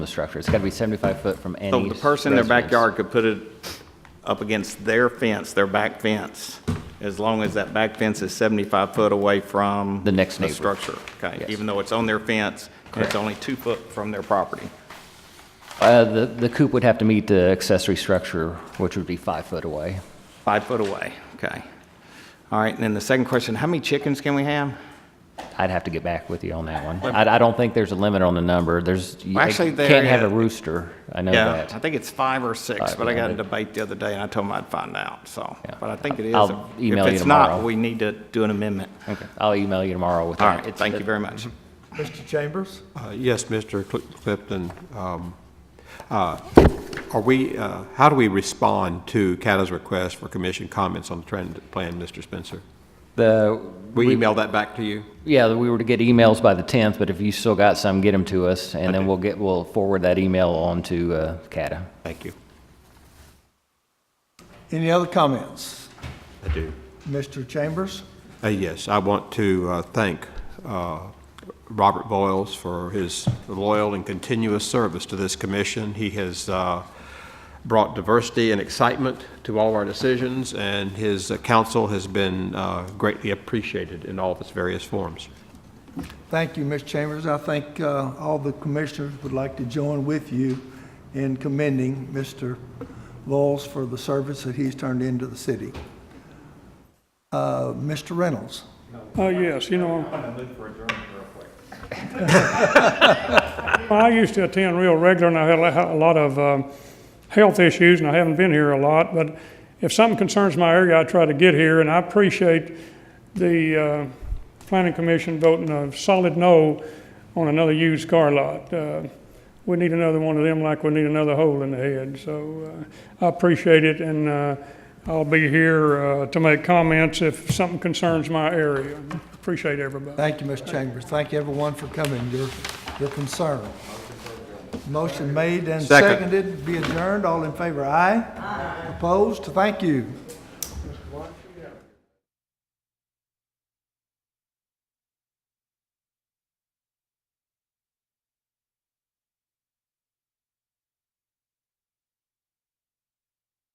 the structure. It's got to be 75 foot from any. So the person in their residence. backyard could put it up against their fence, their back fence, as long as that back fence is 75 foot away from. The next neighbor. The structure, okay? Yes. Even though it's on their fence, and Correct. it's only two foot from their property. Uh, The the coop would have to meet the accessory structure, which would be five foot away. Five foot away, okay. All right, and then the second question, how many chickens can we have? I'd have to get back with you on that one. I I don't think there's a limit on the number. There's, you Well, actually, can't there have a is. rooster. I know Yeah, I that. think it's five or six, Five, but I got a yeah. debate the other day, and I told him I'd find out, so. Yeah. But I think it is. I'll email you If it's not, tomorrow. we need to do an amendment. Okay. I'll email you tomorrow with All that. right, It's- thank you very much. Mr. Chambers? Uh, Yes, Mr. Cl- Clifton. um, uh, Are we, uh, how do we respond to CATA's request for commission comments on the trend plan, Mr. Spencer? The, We email that back to you? yeah, we were to get emails by the 10th, but if you still got some, get them to us, and then we'll get, we'll forward that email on to uh, CATA. Thank you. Any other comments? I do. Mr. Chambers? Uh, Yes, I want to uh, thank uh, Robert Boyles for his loyal and continuous service to this commission. He has uh, brought diversity and excitement to all of our decisions, and his uh, counsel has been uh, greatly appreciated in all of its various forms. Thank you, Mr. Chambers. I think uh, all the commissioners would like to join with you in commending Mr. Voles for the service that he's turned into the city. Uh, Mr. Reynolds? Oh, yes, you know. Well, I used to attend real regular, and I had a had a lot of um, health issues, and I haven't been here a lot, but if something concerns my area, I try to get here, and I appreciate the uh, planning commission voting a solid no on another used car lot. Uh, We need another one of them like we need another hole in the head, so uh, I appreciate it, and uh, I'll be here uh, to make comments if something concerns my area. Appreciate everybody. Thank you, Mr. Chambers. Thank you, everyone, for coming, your, your concern. Motion made and Second. seconded, be adjourned. All in favor, aye? Aye. Opposed? Thank you.